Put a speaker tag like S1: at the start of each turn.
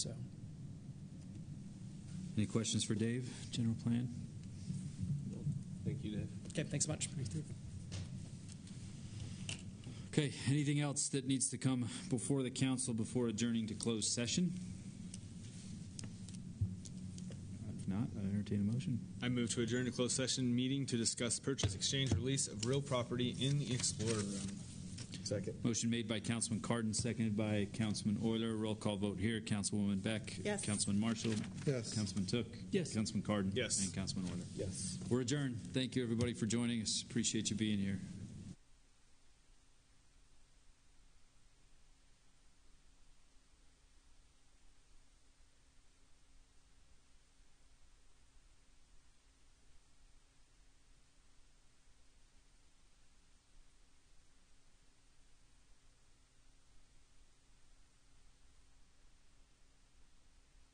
S1: Any questions for Dave, general plan?
S2: Thank you, Dave.
S3: Okay, thanks so much.
S1: Okay, anything else that needs to come before the council before adjourning to closed session? If not, I entertain a motion.
S2: I move to adjourn to closed session meeting to discuss purchase, exchange, release of real property in the Explorer Room. Second.
S1: Motion made by Councilman Cardon, seconded by Councilman Euler. Roll call vote here. Councilwoman Beck.
S4: Yes.
S1: Councilman Marshall.
S5: Yes.
S1: Councilman Took. Yes. Councilman Cardon.
S2: Yes.
S1: And Councilman Euler.
S2: Yes.
S1: We're adjourned. Thank you, everybody, for joining us. Appreciate you being here.